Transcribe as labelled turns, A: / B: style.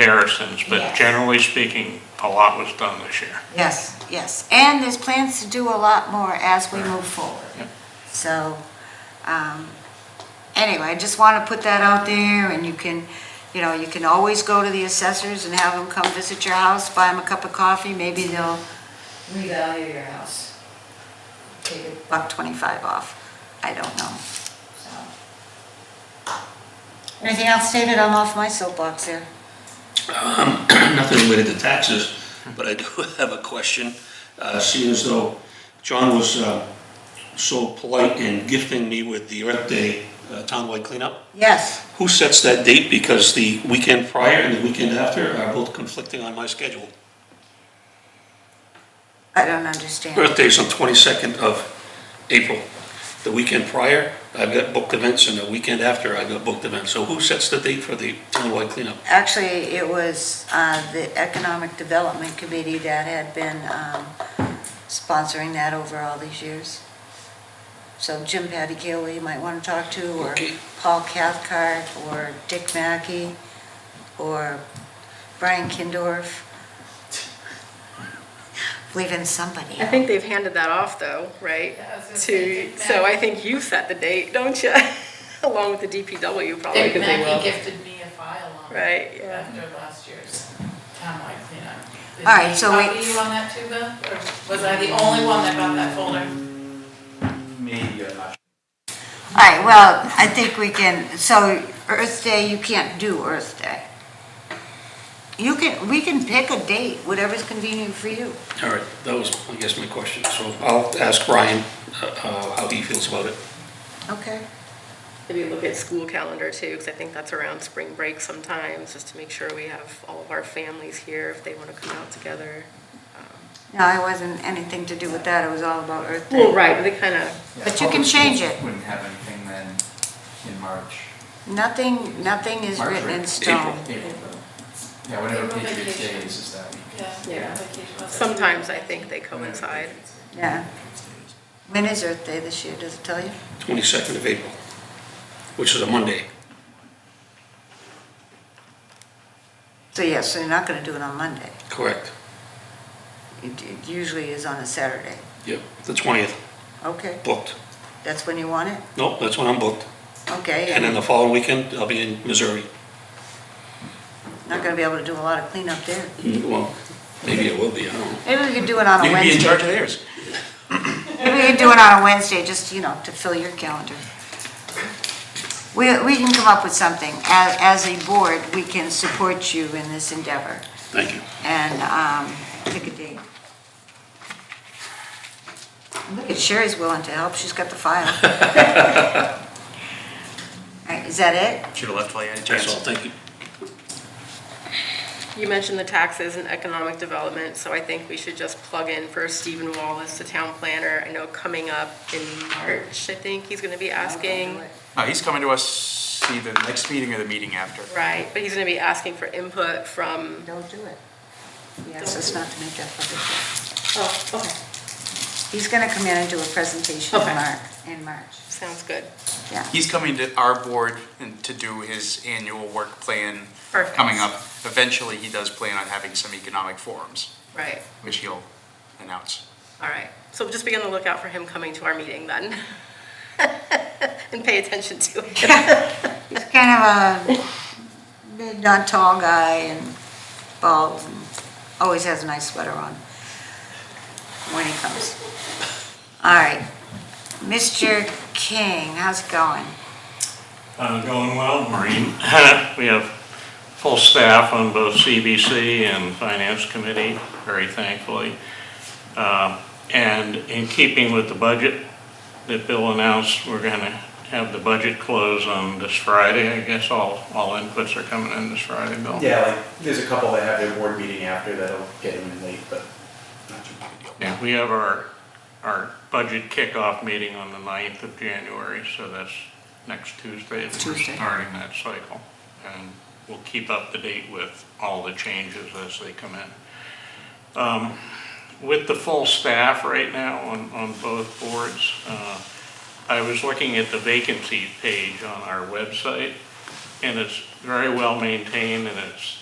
A: comparisons, but
B: Yes.
A: generally speaking, a lot was done this year.
B: Yes, yes, and there's plans to do a lot more as we move forward.
A: Yep.
B: So, um, anyway, I just want to put that out there, and you can, you know, you can always go to the assessors and have them come visit your house, buy them a cup of coffee, maybe they'll
C: revalue your house. Take it,
B: buck 25 off. I don't know.
C: so.
B: Anything else, David? I'm off my soapbox there.
D: Um, nothing related to taxes, but I do have a question. Uh, Seeing as though John was uh, so polite in gifting me with the Earth Day uh, townwide cleanup,
B: Yes,
D: who sets that date? Because the weekend prior and the weekend after are both conflicting on my schedule.
B: I don't understand.
D: Earth Day is on 22nd of April. The weekend prior, I've got booked events, and the weekend after, I've got booked events. So who sets the date for the townwide cleanup?
B: Actually, it was uh, the Economic Development Committee that had been um, sponsoring that over all these years. So Jim Patticaole, you might want to talk to, or
D: Okay.
B: Paul Cathcart, or Dick Mackey, or Brian Kindorf. Believe in somebody.
E: I think they've handed that off though, right?
C: Yeah, I was gonna say,
E: To,
C: Dick
E: so I
C: Mackey.
E: think you set the date, don't you? Along with the DPW probably.
C: Dick
E: 'cause they will.
C: Mackey gifted me a file on
E: Right,
C: it
E: yeah.
C: after last year's townwide cleanup. Did
B: All right,
C: he
B: so we-
C: copy you on that too, Beth? Or was I the only one that got that folder?
E: Mm.
F: Maybe I'm not.
B: All right, well, I think we can, so Earth Day, you can't do Earth Day. You can, we can pick a date, whatever's convenient for you.
D: All right, that was, I guess, my question. So I'll ask Brian uh, uh, how he feels about it.
B: Okay.
E: Maybe look at school calendar too, because I think that's around spring break sometimes, just to make sure we have all of our families here if they want to come out together.
B: No, it wasn't anything to do with that, it was all about Earth Day.
E: Well, right, but they kind of,
F: Yeah,
B: But you can
F: public
B: change
F: schools
B: it.
F: Wouldn't have anything then in March.
B: Nothing, nothing is
F: March,
B: written
F: right?
B: in stone.
F: April. Yeah, whatever
C: April
F: Patriots Day
C: vacation.
F: is, is that week.
C: Yeah.
E: Yeah.
C: vacation was it?
E: sometimes I think they coincide.
B: Yeah. When is Earth Day this year, does it tell you?
D: 22nd of April, which is a Monday.
B: So yes, so you're not gonna do it on Monday.
D: Correct.
B: It it usually is on a Saturday.
D: Yep, the 20th,
B: Okay,
D: booked.
B: that's when you want it?
D: Nope, that's when I'm booked.
B: Okay,
D: And then
B: and
D: the following weekend, I'll be in Missouri.
B: not gonna be able to do a lot of cleanup there.
D: Well, maybe it will be, I don't know.
B: Maybe we could do it on a Wednesday.
D: of theirs.
B: Maybe we can do it on a Wednesday, just, you know, to fill your calendar. We, we can come up with something. As, as a board, we can support you in this endeavor
D: Thank you.
B: and um, pick a date. Look at Sherry's willing to help. She's got the file. All right, Is that it?
F: Should have left while you had a
D: That's all, thank you.
E: You mentioned the taxes and economic development, so I think we should just plug in for Stephen Wallace, the town planner. I know coming up in March, I think he's going to be asking.
F: No, he's coming to us either the next meeting or the meeting after.
E: Right, but he's going to be asking for input from,
B: Don't do it. Yes, it's not to make that public.
E: oh, okay,
B: He's going to come in and do a presentation in
E: Okay.
B: March, in March.
E: sounds good.
B: Yeah.
G: He's coming to our board and to do his annual work plan
E: Perfect.
G: coming up. Eventually, he does plan on having some economic forums,
E: Right,
G: which he'll announce.
E: all right. So just be on the lookout for him coming to our meeting then. And pay attention to it.
B: He's kind of a big, not tall guy and bald and always has a nice sweater on when he comes. All right, Mr. King, how's it going?
A: Uh, Going well, Maureen. We have full staff on both CBC and Finance Committee, very thankfully. Uh, And in keeping with the budget that Bill announced, we're going to have the budget close on this Friday. I guess all, all inputs are coming in this Friday, Bill?
F: Yeah, like, there's a couple that have their board meeting after that'll get him in late, but not too big a deal.
A: Yeah, we have our, our budget kickoff meeting on the 9th of January, so that's next Tuesday. that We're
B: Tuesday.
A: starting that cycle, and we'll keep up to date with all the changes as they come in. Um, With the full staff right now on, on both boards, uh, I was looking at the vacancy page on our website, and it's very well maintained, and it's